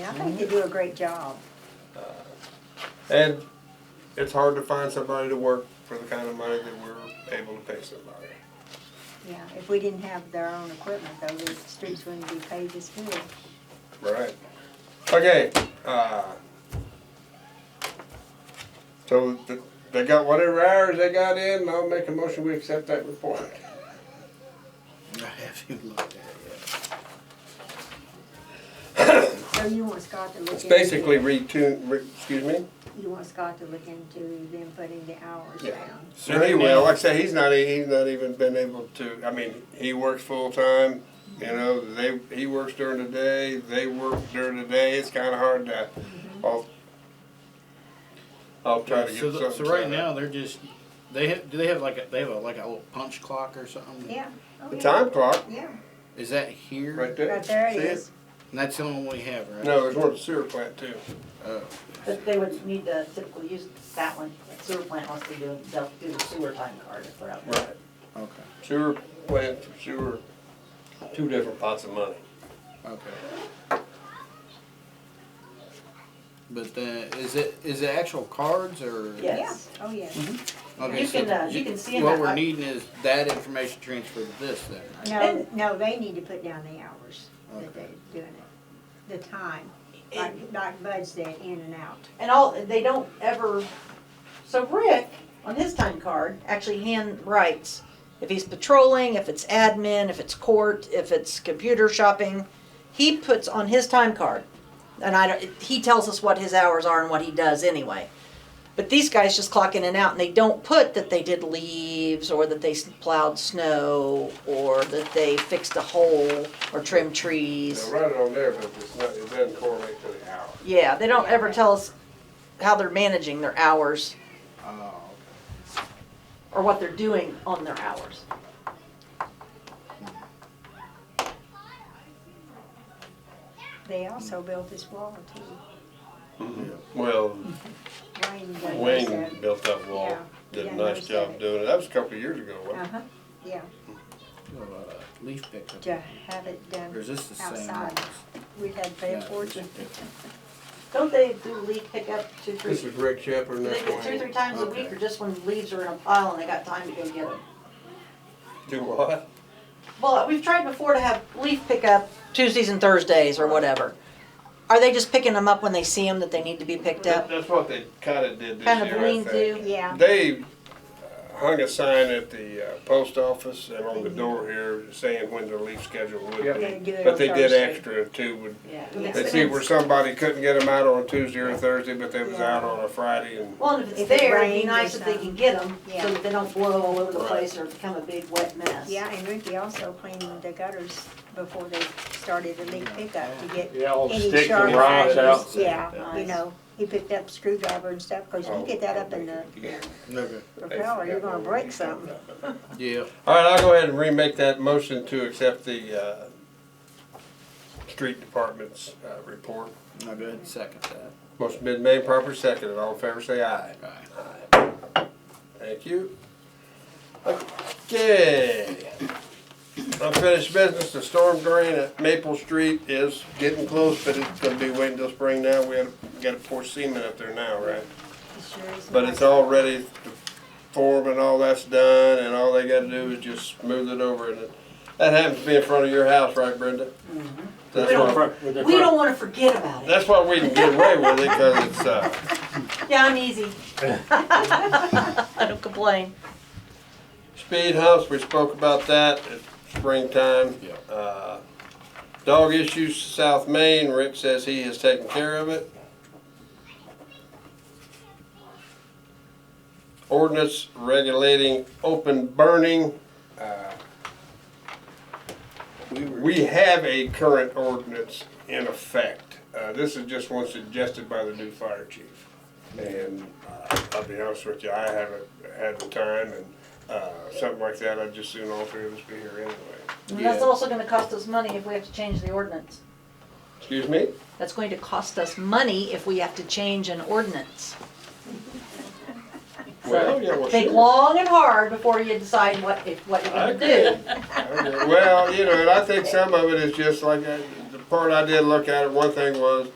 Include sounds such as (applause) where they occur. I think you do a great job. And it's hard to find somebody to work for the kind of money that we're able to pay somebody. Yeah, if we didn't have their own equipment though, the streets wouldn't be paved as good. Right. Okay, uh. So th- they got whatever hours they got in, and I'll make a motion, we accept that report. I haven't looked at it yet. So you want Scott to look It's into. basically retune, re- excuse me? You want Scott to look into them putting the hours Yeah. down. So he will, like I say, he's not, e, he's not even been able to, I mean, he works full-time, you know, they, he works during the day, they work during the day, it's kinda hard to, Mm-hmm. I'll, I'll try to get So, something. the- so right set up. now, they're just, they have, do they have like a, they have a, like a little punch clock or something? Yeah. Oh, The yeah. time clock, Yeah, Is that here? right there. right there it See is. And that's the only one we have, right? No, there's one at the sewer plant too. Oh. But they would need to typically use that one, sewer plant wants to do, they'll do the sewer time card if they're out there. Right. Okay, Sewer plant for sewer, two different pots of money. okay. But then, is it, is it actual cards or? Yeah. Yeah, Yes. oh, yeah. Okay, You so can, uh, you can see 'em What at- we're needing is that information transferred to this then, right? No, no, they need to put down the hours that they're Okay. doing it, the time, like, like Bud said, in and out. And all, they don't ever, so Rick, on his time card, actually hand writes if he's patrolling, if it's admin, if it's court, if it's computer shopping, he puts on his time card. And I don't, he tells us what his hours are and what he does anyway. But these guys just clock in and out and they don't put that they did leaves or that they plowed snow or that they fixed a hole or trimmed trees. Now, write it on there, but it's not, it doesn't correlate to the hour. Yeah, they don't ever tell us how they're managing their hours Oh, or what they're doing on their hours. They also built this wall too. Well, Wayne done Wayne this, uh, built that wall, Yeah. did Yeah, a nice noticed job that. doing it. That was a couple of years ago, wasn't Uh-huh, yeah, okay. What about a leaf pickup? to have it Or is done, this the same? outside. we had to pay a fortune. Don't they do leaf pickup two, it? three, This do is Rick Shepherd and they that's do two, Wayne. three times a Okay. week or just when leaves are in a pile and they got time to go get them? Do what? Well, we've tried before to have leaf pickup Tuesdays and Thursdays or whatever. Are they just picking them up when they see them that they need to be picked That- up? That's what they kinda did this Kind of year, I lean think. to? Yeah, They uh, hung a sign at the uh, post office and on the door here saying when their leaf schedule would Yep. They be. do it But on they did Thursday. extra too, would Yeah. They see where somebody couldn't get them out on Tuesday or Thursday, but they was Yeah. out on a Friday and, Well, and if it's If it there, it'd rains be or nice if they something. can get them Yeah. so that they don't blow all over the Right. place or become a big wet mess. yeah, and Ricky also cleaned the gutters before they started the leak pickup to get Yeah, all the any sticks sharp and rocks out. items. Yeah, you Nice. know, he picked up screwdriver and stuff, cause you get that up in the yeah. Okay, propeller, you're gonna break something. yeah. All right, I'll go ahead and remake that motion to accept the, uh, street department's, uh, report. I'll go ahead and second that. Motion been made, proper seconded. All in favor, say aye. Alright. Thank you. Okay. Unfinished business, the storm drain at Maple Street is getting close, but it's gonna be waiting till spring now. We gotta, gotta pour cement up there now, right? It sure is But nice. it's all ready, the form and all that's done, and all they gotta do is just smooth it over, and it- that happens to be in front of your house, right, Brenda? That's We why, We don't wanna forget about (laughs) it. that's why we can get away with it, cause it's, uh, Yeah, I'm easy. (laughs) I don't complain. speed humps, we spoke about that at springtime. Yeah. Uh, Dog issues, South Main, Rick says he has taken care of it. Ordinance regulating open burning. uh, We have a current ordinance in effect. Uh, This is just one suggested by the new fire chief. And uh, I'll be honest with you, I haven't had the time and uh, something like that, I'd just soon all three of us be here anyway. And that's Yeah. also gonna cost us money if we have to change the ordinance. Excuse me? That's going to cost us money if we have to change an ordinance. Well, yeah, well, Think Oh, sure. (laughs) long and hard before you decide what, if, what you're gonna do. Okay, Well, you know, and I think some of it is just like, uh, the part I did look at, it. one thing was,